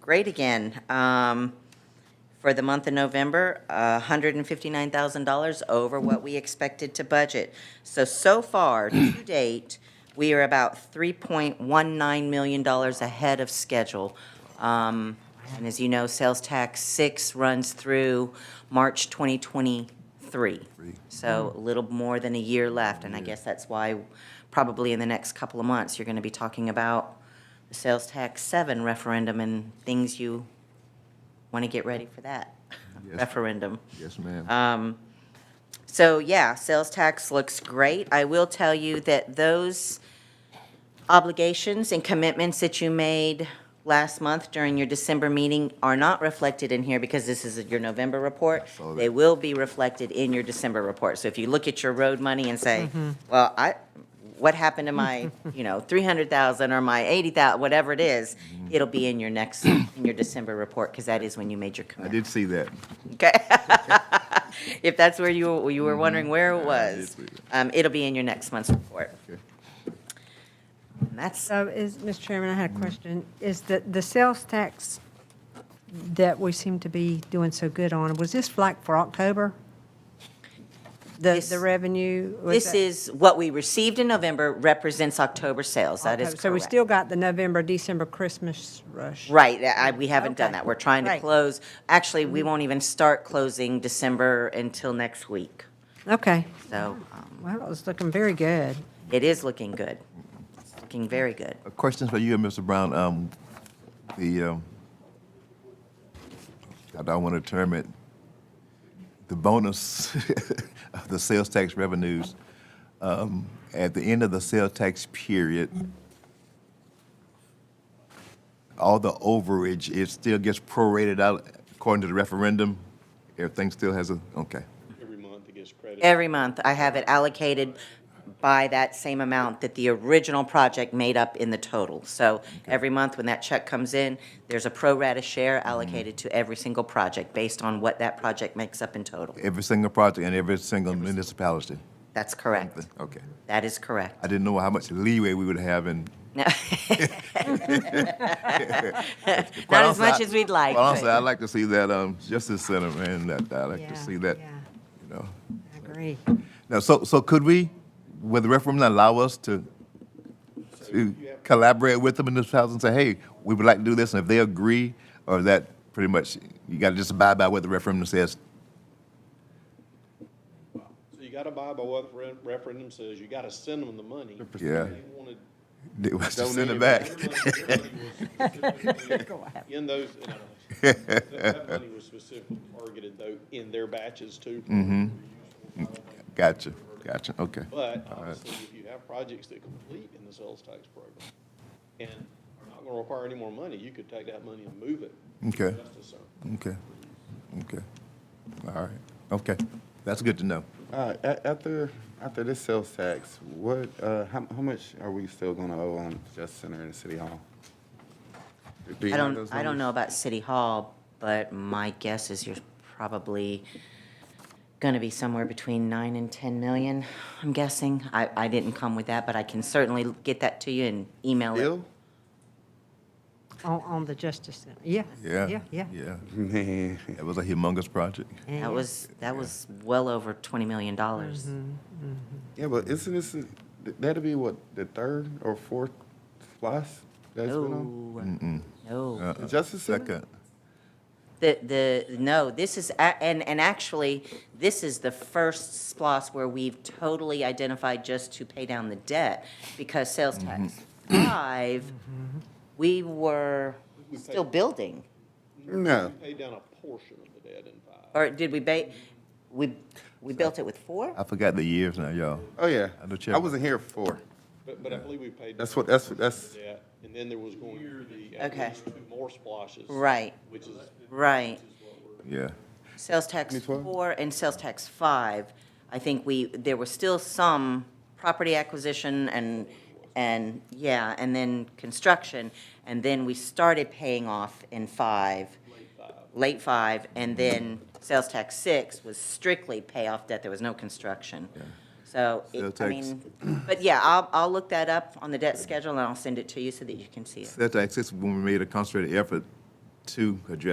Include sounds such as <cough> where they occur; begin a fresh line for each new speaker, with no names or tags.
great again. Um, For the month of November, $159,000 over what we expected to budget. So, so far, to date, we are about $3.19 million ahead of schedule. Um, And as you know, sales tax six runs through March 2023. So a little more than a year left, and I guess that's why probably in the next couple of months, you're going to be talking about the sales tax seven referendum and things you want to get ready for that
Yes.
referendum.
Yes, ma'am.
Um, So yeah, sales tax looks great. I will tell you that those obligations and commitments that you made last month during your December meeting are not reflected in here because this is your November report.
saw
They
that.
will be reflected in your December report. So if you look at your road money and say,
Mm-hmm.
well, I, what happened to
<laughs>
my, you know, three hundred thousand or my eighty thousand, whatever it is,
Mm-hmm.
it'll be in your next, in your December report, because that is when you made your
I
commitment.
did see that.
Okay. <laughs> If that's where you, you were wondering where it was,
it's weird.
um, it'll be in your next month's report.
Okay.
And that's,
So is, Mr. Chairman, I had a question. Is the, the sales tax that we seem to be doing so good on, was this like for October? The,
This-
the revenue? was
this
that-
is, what we received in November represents October sales. That is
October. So we
correct.
still got the November, December Christmas rush.
Right, I, we haven't done
Okay.
that. We're trying to
Right. Mm-hmm.
close, actually, we won't even start closing December until next week.
Okay.
So,
Ah.
um,
Well, it was looking very good.
it is looking good. It's Looking very good.
A question Uh, for you and Mr. Brown. Um, the, um, I don't want to term it, the bonus <laughs> of the sales tax revenues. Um, at the end of the sales tax period, all the overage, it still gets prorated out according to the referendum? Everything still has a, okay.
Every month it gets credit.
Every month, I have it allocated by that same amount that the original project made up in the total. So every month, when that check comes in, there's a pro rata
Mm-hmm.
share allocated to every single project based on what that project makes up in total.
Every single project and every single municipality?
That's correct.
Okay.
That is
I <laughs>
correct. <laughs>
didn't know how much leeway we would have in.
No.
Quite
Not as
honestly,
much
I-
as we'd like.
Quite honestly,
but-
I'd like to see that, um, Justice Center, man, that, I'd like
Yeah,
to see that,
yeah.
you know.
I agree.
Now, so, so could we, would the referendum allow us to, to collaborate with the municipalities and say, hey, we would like to do this, and if they agree, or that pretty much, you gotta just abide by what the referendum says? <laughs>
So you gotta buy by what re- referendum says, you gotta send them the money.
Yeah.
They wanna
They must just Send it
donate
back.
That money was In those, in those-
<laughs>
that- that money was specifically targeted though in their batches too.
Mm-hmm. Gotcha, gotcha, okay.
But obviously, if you have projects that complete in the sales tax program and are not gonna require any more money, you could take that money and move it. to
Okay.
Justice Center.
Okay, okay, all right, okay, that's good to know.
Uh, a- after, after this sales tax, what, uh, how, how much are we still gonna owe on Justice Center and City Hall? Do you
I
know
don't,
those
I don't know
numbers?
about City Hall, but my guess is you're probably gonna be somewhere between nine and 10 million, I'm guessing. I, I didn't come with that, but I can certainly get that to you and email it.
Bill?
On, on the Justice Center. Yeah.
Yeah,
Yeah, yeah.
yeah.
Man,
It was a humongous project.
Yeah.
That was, that was well over $20 million.
<laughs> yeah, but isn't this, that'd be what, the third or fourth plus that's been on?
No, no.
The Justice Center?
Second,
The, the, no, this is, a- and, and actually, this is the first splos where we've totally identified just to pay down the debt, because sales tax five, we were
We paid-
still building,
No,
Paid down a portion of the debt in five.
or did we ba, we, we built it with four?
I forgot the years now, y'all.
oh yeah,
I know Chip-
I wasn't here for,
But, but I believe we paid.
that's
down
what, that's, that's,
Yeah, and then there was going to be at
Okay.
least two more splashes.
Right,
Which is,
right.
Yeah,
Sales tax
2012?
four and sales tax five, I think we, there was still some property acquisition and, and, yeah, and then construction. And then we started paying off in five, late five, and then sales tax six was strictly pay off debt, there was no construction. So, it-
Sales
I
tax-
mean, but yeah, I'll, I'll look that up on the debt schedule and I'll send it to you so that you can see it.
that's accessible when we made a concentrated effort to address